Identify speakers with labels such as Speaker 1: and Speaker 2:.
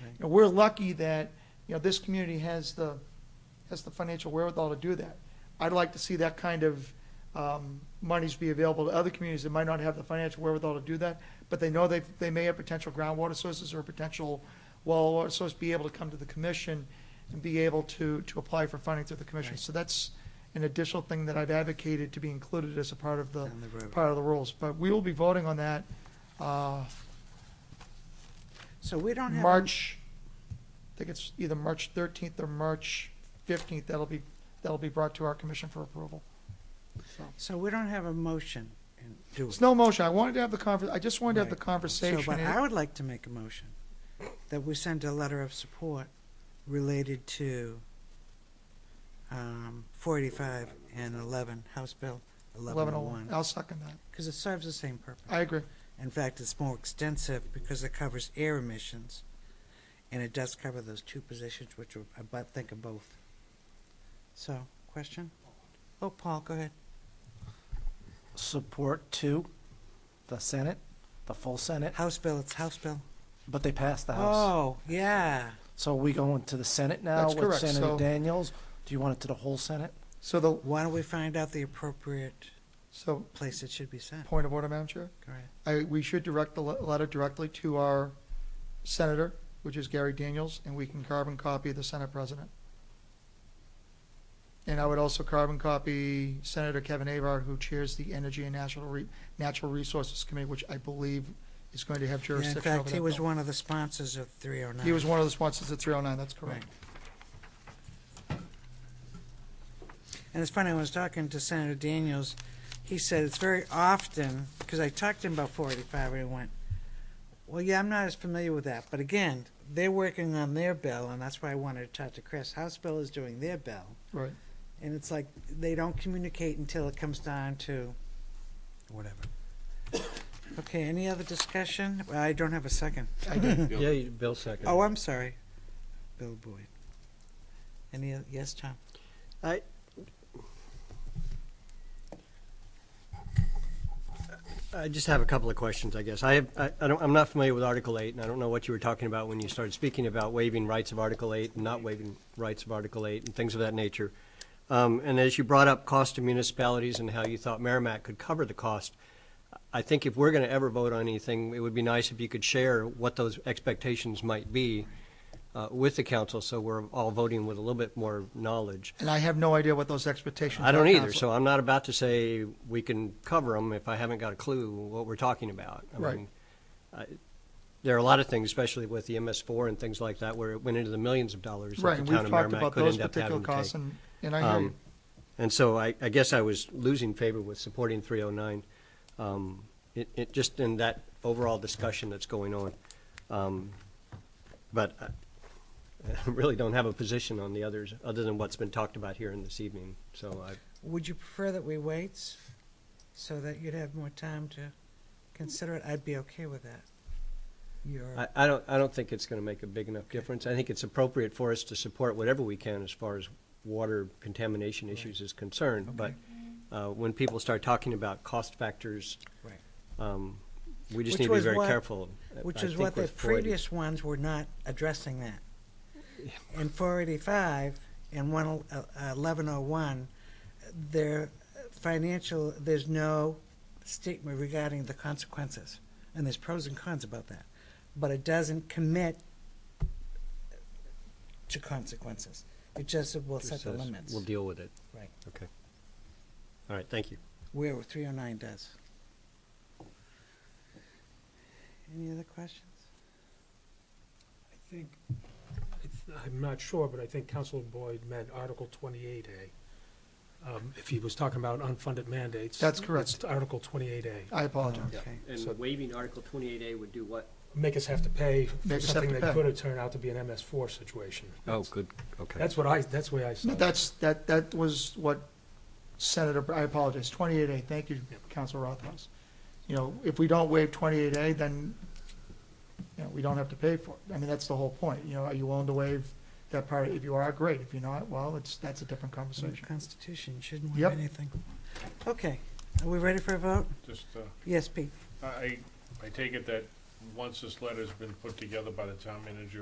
Speaker 1: You know, we're lucky that, you know, this community has the, has the financial wherewithal to do that. I'd like to see that kind of um, monies be available to other communities that might not have the financial wherewithal to do that, but they know they, they may have potential groundwater sources or potential well water source, be able to come to the commission and be able to, to apply for funding through the commission.
Speaker 2: Right.
Speaker 1: So that's an additional thing that I've advocated to be included as a part of the,
Speaker 2: Down the road.
Speaker 1: part of the rules. But we will be voting on that uh,
Speaker 2: So we don't have. a-
Speaker 1: March, I think it's either March 13th or March 15th, that'll be, that'll be brought to our commission for approval. So
Speaker 2: So we don't have a motion and do
Speaker 1: It's
Speaker 2: it.
Speaker 1: no motion, I wanted to have the conver, I just wanted to have the
Speaker 2: Right. So,
Speaker 1: conversation.
Speaker 2: but I would like to make a motion that we send a letter of support related to um, 485 and 11, House Bill
Speaker 1: 1101,
Speaker 2: 1101,
Speaker 1: I'll second that.
Speaker 2: because it serves the same purpose.
Speaker 1: I agree,
Speaker 2: In fact, it's more extensive because it covers air emissions, and it does cover those two positions, which are, I bu- think of both. So, question? Oh, Paul, go ahead.
Speaker 3: support to the Senate, the full Senate,
Speaker 2: House bill, it's House bill.
Speaker 3: but they passed the House.
Speaker 2: Oh, yeah.
Speaker 3: So we going to the Senate now
Speaker 1: That's
Speaker 3: with
Speaker 1: correct,
Speaker 3: Senator
Speaker 1: so-
Speaker 3: Daniels? Do you want it to the whole Senate?
Speaker 1: so the,
Speaker 2: Why don't we find out the appropriate
Speaker 1: so,
Speaker 2: place it should be sent?
Speaker 1: point of order, Madam Chair?
Speaker 2: Go ahead.
Speaker 1: I, we should direct the le- letter directly to our senator, which is Gary Daniels, and we can carbon copy the Senate President. And I would also carbon copy Senator Kevin Avar, who chairs the Energy and Natural Re- Natural Resources Committee, which I believe is going to have
Speaker 2: Yeah, in
Speaker 1: jurisdiction over
Speaker 2: fact,
Speaker 1: that.
Speaker 2: he was
Speaker 1: bill.
Speaker 2: one of the sponsors of 309.
Speaker 1: He was one of the sponsors of three oh nine, that's correct.
Speaker 2: And it's funny, I was talking to Senator Daniels, he said it's very often, because I talked to him about 485, and he went, well, yeah, I'm not as familiar with that, but again, they're working on their bill, and that's why I wanted to talk to Chris. House bill is doing their bill,
Speaker 1: Right.
Speaker 2: and it's like, they don't communicate until it comes down to whatever. Okay, any other discussion? Well, I don't have a second.
Speaker 1: I did.
Speaker 4: Yeah, you- Bill second.
Speaker 2: Oh, I'm sorry, Bill Boyd. Any, oth- yes, Tom?
Speaker 4: I, I just have a couple of questions, I guess. I have, I, I don't, I'm not familiar with Article Eight, and I don't know what you were talking about when you started speaking about waiving rights of Article Eight and not waiving rights of Article Eight and things of that nature. Um, and as you brought up cost to municipalities and how you thought Merrimack could cover the cost, I think if we're gonna ever vote on anything, it would be nice if you could share what those expectations might be uh, with the council, so we're all voting with a little bit more knowledge.
Speaker 1: And I have no idea what those expectations are.
Speaker 4: I don't either,
Speaker 1: Counselor.
Speaker 4: so I'm not about to say we can cover them if I haven't got a clue what we're talking about. I
Speaker 1: Right.
Speaker 4: mean, I- There are a lot of things, especially with the MS4 and things like that, where it went into the millions of dollars
Speaker 1: Right,
Speaker 4: that
Speaker 1: and
Speaker 4: the town
Speaker 1: we've
Speaker 4: of
Speaker 1: talked
Speaker 4: Merrimack
Speaker 1: about
Speaker 4: could
Speaker 1: those
Speaker 4: end up
Speaker 1: particular
Speaker 4: having to
Speaker 1: costs,
Speaker 4: take.
Speaker 1: and, and I hear you.
Speaker 4: Um, And so I, I guess I was losing favor with supporting 309, um, it, it, just in that overall discussion that's going on. Um, But I I really don't have a position on the others, other than what's been talked about here in this evening, so I,
Speaker 2: Would you prefer that we wait so that you'd have more time to consider it? I'd be okay with that. You're,
Speaker 4: I, I don't, I don't think it's going to make a big enough difference. I think it's appropriate for us to support whatever we can as far as water contamination issues is concerned. But uh, when people start talking about cost factors,
Speaker 2: Right.
Speaker 4: um, we
Speaker 2: Which
Speaker 4: just need to be
Speaker 2: was
Speaker 4: very
Speaker 2: what-
Speaker 4: careful.
Speaker 2: which
Speaker 4: I
Speaker 2: is
Speaker 4: think
Speaker 2: what the
Speaker 4: with 480
Speaker 2: previous ones were not addressing that. In four eighty-five and one, eleven oh one, their financial, there's no statement regarding the consequences. And there's pros and cons about that, but it doesn't commit to consequences. It just will
Speaker 4: just
Speaker 2: set the
Speaker 4: says
Speaker 2: limits.
Speaker 4: We'll deal with it.
Speaker 2: Right.
Speaker 4: Okay. All right, thank you.
Speaker 2: where 309 does. Any other questions?
Speaker 5: I think, it's- I'm not sure, but I think Councilor Boyd meant Article 28A. Um, If he was talking about unfunded mandates.
Speaker 1: That's correct.
Speaker 5: It's Article 28A.
Speaker 1: I apologize.
Speaker 2: Okay.
Speaker 5: So-
Speaker 4: And waiving Article 28A would do what?
Speaker 5: Make us have to pay
Speaker 1: Make
Speaker 5: for
Speaker 1: us have
Speaker 5: something
Speaker 1: to
Speaker 5: that
Speaker 1: pay.
Speaker 5: could have turned out to be an MS4 situation.
Speaker 4: Oh, good, okay.
Speaker 5: That's what I, that's the way I saw
Speaker 1: No,
Speaker 5: it.
Speaker 1: That's, that, that was what Senator, I apologize, 28A, thank you, Council Rothhaus. You know, if we don't waive 28A, then, you know, we don't have to pay for it. I mean, that's the whole point, you know, are you willing to waive that part? If you are, great, if you're not, well, it's, that's a different
Speaker 2: So the
Speaker 1: conversation.
Speaker 2: Constitution shouldn't
Speaker 1: Yep.
Speaker 2: have anything. Okay, are we ready for a vote?
Speaker 6: Just, uh,
Speaker 2: Yes, Pete?
Speaker 6: I, I take it that once this letter's been put together by the town manager